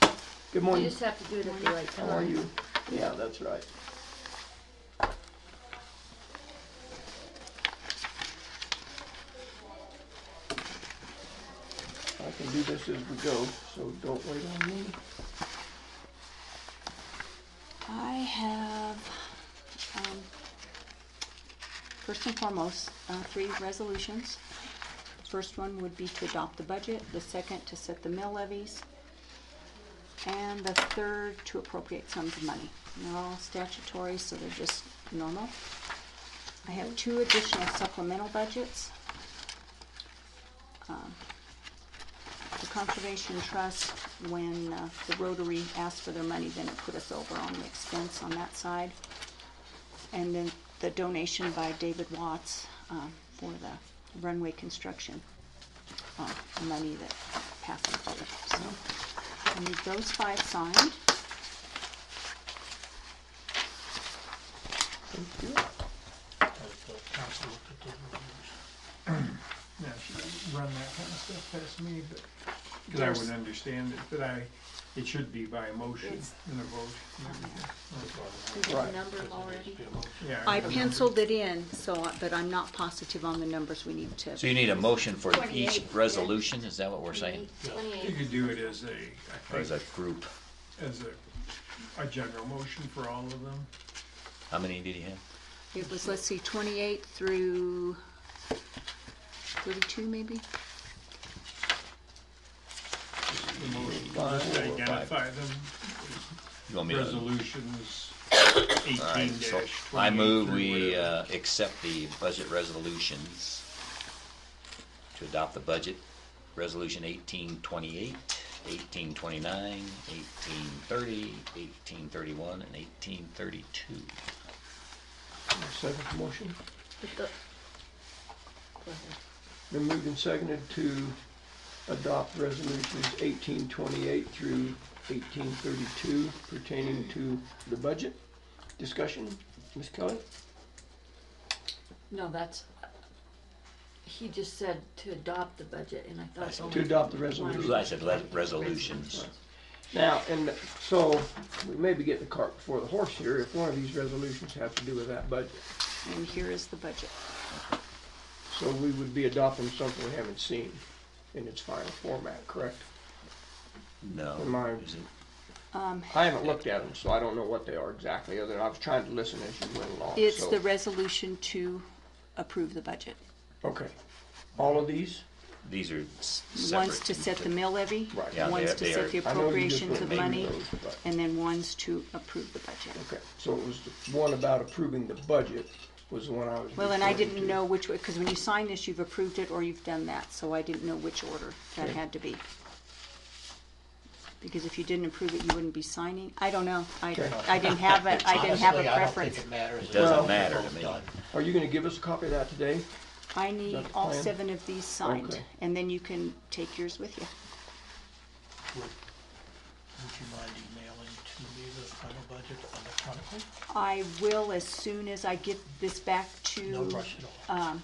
Good You morning. just have to do it at the right time. How are you? Yeah, that's right. I can do this as we go, so don't wait on me. I have, um, first and foremost, uh, three resolutions. The First one would be to adopt the budget, the second to set the mill levies, and the third to appropriate sums of money. And They're all statutory, so they're just normal. I have two additional supplemental budgets. Um, The Conservation Trust, when uh, the Rotary asked for their money, then it put us over on the expense on that side. And then the donation by David Watts um, for the runway construction, uh, money that passed through. So I need those five signed. Thank you. Has the council looked at those reviews? Yeah, she doesn't run that kind of stuff past me, but, because I There's- would understand it, but I, it should be by motion It's- and a vote. and everything. Did you Right. number them There needs already? to be a motion. Yeah. I remember. penciled it in, so, I- but I'm not positive on the numbers we need So to. you need a motion for each 28, yeah. resolution, is that what we're saying? You Twenty-eight. could do it as a, Or I is that think, group? as a, a general motion for all of them. How many did you have? It was, let's see, 28 through 32 maybe? The motion, Five, just four, or identify them, You want me to? resolutions All right, eighteen so dash twenty-eight. I move through we whatever. uh, accept the budget resolutions to adopt the budget, Resolution 1828, 1829, 1830, 1831, and 1832. I'll Second motion. But the- Go ahead. Been moved and seconded to adopt resolutions eighteen twenty-eight through eighteen thirty-two pertaining to the budget. Discussion, Ms. Kelly? No, that's, he just said to adopt the budget, and I thought. said only To adopt the one. resolution. I said le- resolutions. Now, and so, we may be getting the cart before the horse here, if one of these resolutions have to do with that budget. And here is the budget. So we would be adopting something we haven't seen in its final format, correct? No. Mine. is it- I haven't looked at them, so I don't know what they are exactly, other than I was trying to listen as you went along, It's so- the resolution to approve the budget. Okay, all of these? These are s- separate. One's to set the mill levy, Right. Yeah, they one's are- to they set are- the I know you just appropriations went of through money, those, but- and then one's to approve the budget. Okay, so it was the one about approving the budget was the one I was. Well, and I referring didn't to. know which, because when you sign this, you've approved it or you've done that, so I didn't know which order that Okay. had to be. Because if you didn't approve it, you wouldn't be signing. I don't know. I, Okay. I didn't have a, I didn't have a Honestly, I don't think preference. it matters. It doesn't Well- matter to me. Are you gonna give us a copy of that today? I need That's all fine. seven of these signed, Okay. and then you can take yours with you. Would would you mind emailing to me the final budget electronically? I will as soon as I get this back to. No rush at uh, all.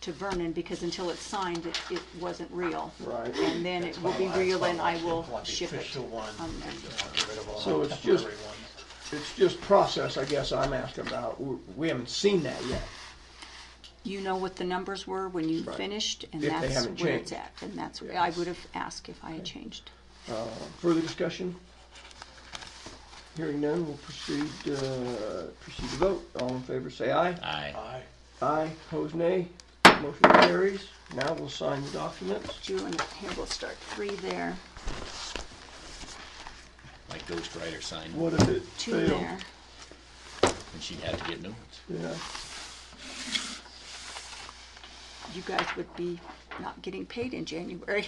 to Vernon because until it's signed, it, it wasn't real. Right. And then it will be Well, I- real and I well, will want the ship it. Um, official one, on there. you know, get rid of all So the it's just- temporary ones. It's just process, I guess I'm asking about. We we haven't seen that yet. You know what the numbers were when you Right. finished and If they that's haven't where it's changed. at. And that's, where Yeah. I would have asked if I had changed. Further discussion? Hearing none, we'll proceed, uh, proceed to vote. All in favor, say aye. Aye. Aye. Aye, opposed nay. Motion carries. Now we'll sign the documents. Drew and here we'll start three there, My ghostwriter signed What if it two there. fails? and she'd have to get new ones. Yeah, You guys would be not getting paid in January.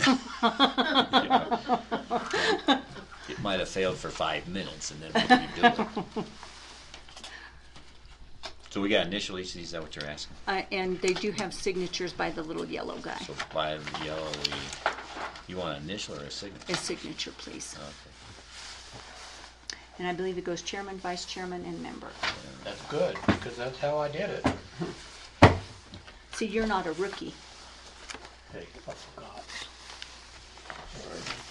It might have failed for five minutes and then we'll redo it. So we got initial each, is that what you're asking? Uh, and they do have signatures by the little yellow guy. So by the yellow, we, you want an initial or a A signature? Oh. signature, please. Okay. And I believe it goes chairman, vice chairman, and member. That's good, because that's how I did it. See, you're not a rookie. Oh, Hey, I forgot. all right.